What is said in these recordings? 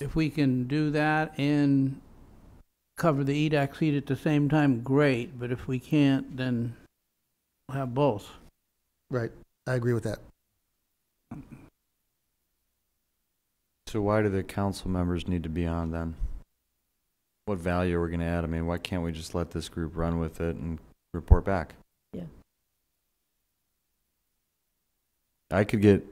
if we can do that and cover the E EDAC seat at the same time, great, but if we can't, then we'll have both. Right, I agree with that. So why do the council members need to be on then? What value are we gonna add? I mean, why can't we just let this group run with it and report back? Yeah. I could get,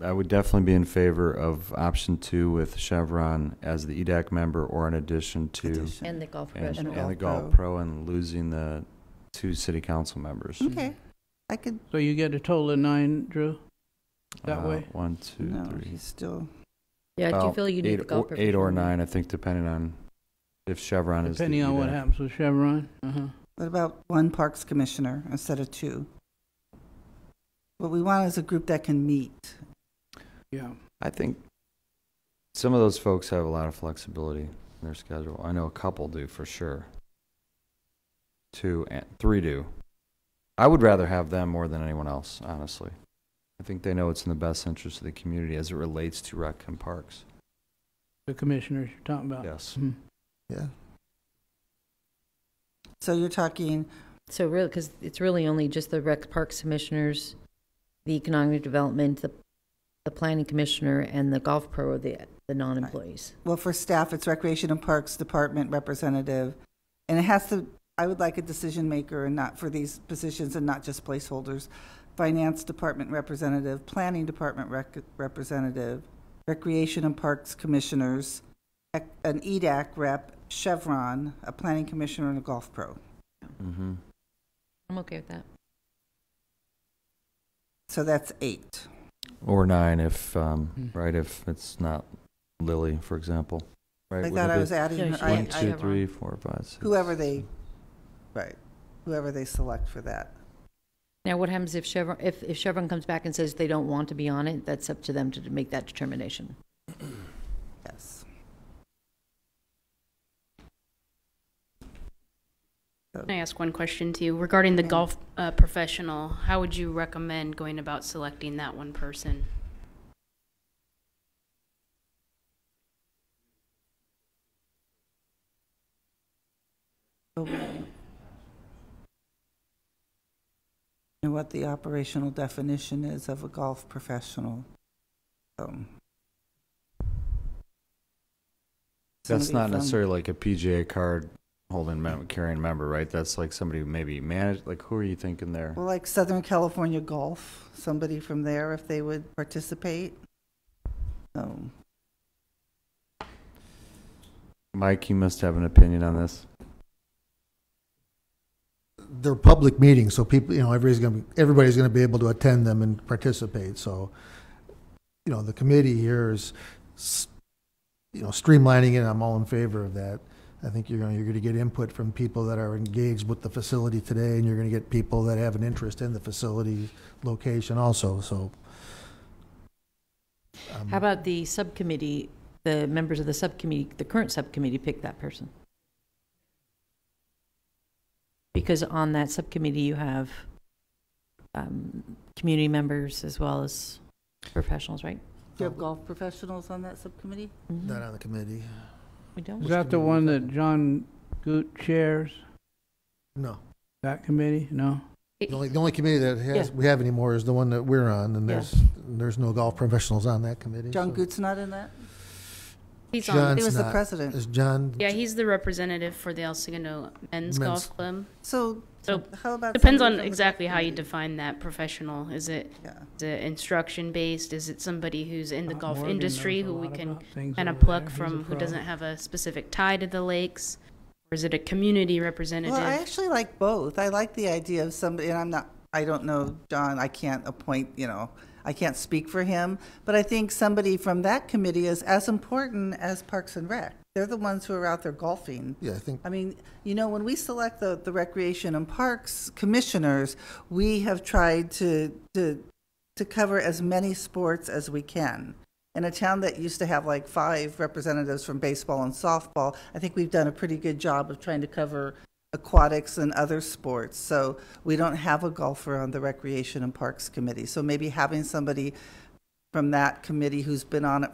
I would definitely be in favor of option two with Chevron as the EDAC member or in addition to And the golf and professional. and the Golf golf Pro. pro and losing the two city council members. Okay, I could, So you get a total of nine, Drew? That Uh, way? One, two, no, three. he's still, Yeah, I do Well, feel you need eight the golf or- Eight or professional. nine, I think, depending on if Chevron is. the E Depending on what EDAC. happens with Chevron? Uh-huh. what about one parks commissioner instead of two? What we want is a group that can meet. Yeah. I think some of those folks have a lot of flexibility in their schedule. I know a couple do for sure. Two and three do. I would rather have them more than anyone else, honestly. I think they know what's in the best interest of the community as it relates to rec and parks. The commissioners you're talking about? Yes. Mhm. Yeah, So you're talking, So really, because it's really only just the rec parks commissioners, the economic development, the, the planning commissioner, and the golf pro are the, the non-employees. well, for staff, it's Recreation and Parks Department representative. And it has to, I would like a decision maker and not for these positions and not just placeholders. Finance Department representative, Planning Department rec- representative, Recreation and Parks commissioners, ec- an E EDAC rep, Chevron, a planning commissioner, and a golf pro. Mm-hmm. I'm okay with that. So that's eight. Or nine if, um, Hmm. right, if it's not Lily, for example. Right, Like would that, it I be was adding, Yeah, her- she- One, I, I two, have three, four, five, six. whoever they, right, whoever they select for that. Now, what happens if Chevron, if, if Chevron comes back and says they don't want to be on it, that's up to them to make that determination. Yes. So, Can I ask one question to you regarding the golf uh, professional? How would you recommend going about selecting that one person? And what the operational definition is of a golf professional. Um, That's somebody not from- necessarily like a PGA card holding mem- carrying member, right? That's like somebody who maybe manage. Like, who are you thinking there? Well, like Southern California Golf, somebody from there, if they would participate. Um, Mike, you must have an opinion on this. they're public meetings, so people, you know, everybody's gonna, be- everybody's gonna be able to attend them and participate, so, you know, the committee here is, s- you know, streamlining it, I'm all in favor of that. I think you're gonna, you're gonna get input from people that are engaged with the facility today, and you're gonna get people that have an interest in the facility location also, so. um, How about the subcommittee, the members of the subcommittee, the current subcommittee pick that person? Because on that subcommittee, you have um, community members as well as professionals, right? Do you have golf professionals on that subcommittee? Not on the committee, Mm-hmm. We don't? Is that the one that John Goot chairs, no. that committee? No? The only, the only committee that has, Yeah. we have anymore is the one that we're on, and Yeah. there's, there's no golf professionals on that committee. John so- Goot's not in that? He's John- on. He It's was the not. president. Is John? Yeah, he's the representative for the El Segundo Men's. Men's Golf Club. So, So how about? depends somebody on from the exactly how you community? define that professional. Is it Yeah. is it instruction based? Is it somebody who's in the Scott golf Uh, Morgan industry knows a who we lot can about things kind of over there. pluck He's a from who pro. doesn't have a specific tie to the lakes? Or is it a community representative? Well, I actually like both. I like the idea of somebody, and I'm not, I don't know, John, I can't appoint, you know, I can't speak for him, but I think somebody from that committee is as important as Parks and Rec. They're the ones who are out there golfing. Yeah, I think, I mean, you know, when we select the, the recreation and parks commissioners, we have tried to, to, to cover as many sports as we can. In a town that used to have like five representatives from baseball and softball, I think we've done a pretty good job of trying to cover aquatics and other sports. So we don't have a golfer on the recreation and parks committee. So maybe having somebody from that committee who's been on it